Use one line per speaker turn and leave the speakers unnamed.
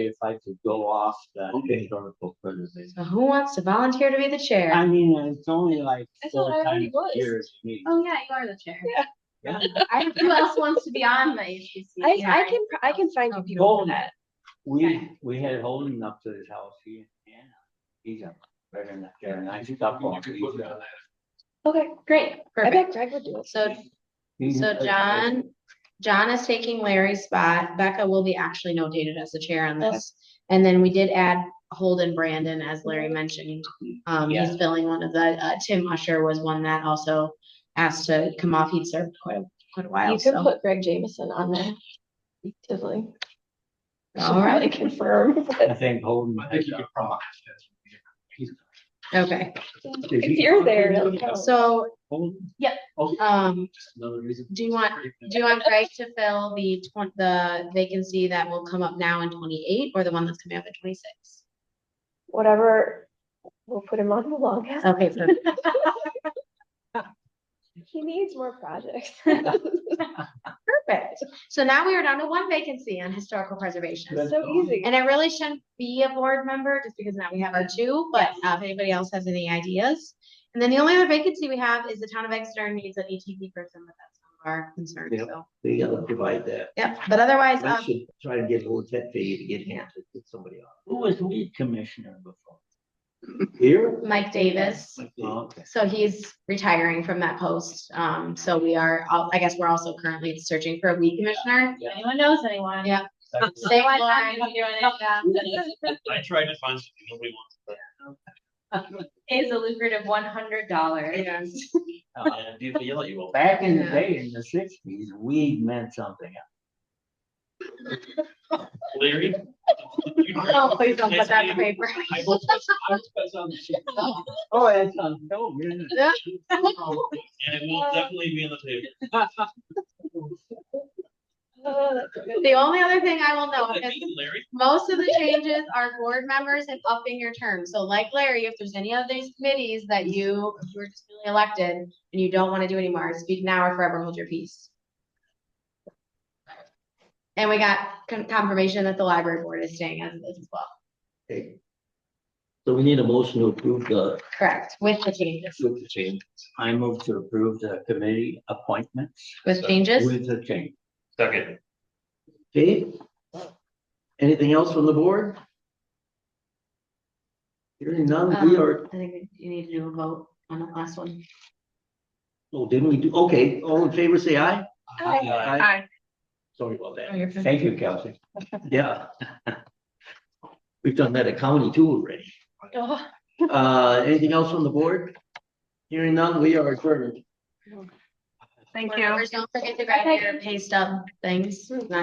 if I could go off that
Okay.
historical criticism.
So who wants to volunteer to be the
I
chair?
mean, it's only like
I thought
four
I already
times a
was.
year. it's me.
Oh, yeah, you are the chair.
Yeah.
I, who else wants to be on the HPC?
I, I can, pr- I can find you people for
Golden.
that.
We, we had Holden up to his house, he, and Anna. he's a veteran, they're a nice couple.
Okay, great. I
Perfect.
bet Greg would do it.
So,
He's-
so John, John is taking Larry's spot. Becca will be actually notated as the chair on this. And then we did add Holden Brandon, as Larry mentioned. Um, he's
Yeah.
filling one of the, uh, Tim Usher was one that also asked to come off. He'd served quite, a- quite a while,
You can
so.
put Greg Jameson on there. Definitely. Should
All right.
probably confirm.
I think Holden.
I think you could probably. ask that.
Okay,
Did
If
he-
you're there,
Holden?
it'll count.
so,
Holden?
Yep.
Oh,
um,
Just another reason.
Do you want- do you want Greg to fill the twen- the vacancy that will come up now in twenty-eight or the one that's coming up in twenty-six?
Whatever, we'll put him on the longest.
Okay, perfect.
He needs more projects. Oh,
perfect. So now we are down to one vacancy on historical preservation.
Good.
So easy.
And it really shouldn't be a board member just because now we have our two, but uh, if anybody else has any ideas. And then the only other vacancy we have is the town of Exeter needs an ETP person, but that's one of our concerns,
Yeah.
so.
They gotta divide that.
Yep, but otherwise,
I
uh,
should try to get a little tip for you to get hands to get somebody else.
Who was weed commissioner before?
Here?
Mike Davis.
Oh,
okay.
So he's retiring from that post. Um, so we are, al- I guess we're also currently searching for a weed commissioner.
If anyone knows anyone.
Yeah.
Same
Say Lauren.
I tried to find something nobody wants. but-
Is a lucrative one hundred dollars.
Uh, and if you yell at you, well,
Back in the
Yeah.
day, in the sixties, weed meant something.
Larry.
Oh, please don't put that in the paper.
I hope that's- I hope that's on the sheet.
Oh, that's on film, isn't it?
Yeah.
And it will definitely be on the table.
Oh, that's a good-
The only other thing I will note
I
is
think Larry,
most of the changes are board members and upping your term. So like Larry, if there's any of these committees that you, you were just newly elected and you don't want to do anymore, speak now or forever hold your peace. And we got con- confirmation that the library board is staying as it is as well.
okay. So we need a motion to approve the,
Correct, with the changes,
with the change.
I move to approve the committee appointments
with changes.
with the change.
second,
Okay? Anything else from the board? Hearing none, we
Um,
are,
I think you need to do a vote on the last one.
oh, didn't we do, okay, all in favor, say aye.
Aye.
Aye. Sorry about that.
Thank you, Kelsey.
Yeah. We've done that at county too already.
Oh,
Uh, anything else from the board? Hearing none, we are adjourned.
Thank you. Mm-hmm. Don't forget to
Okay.
grab your pay stub things.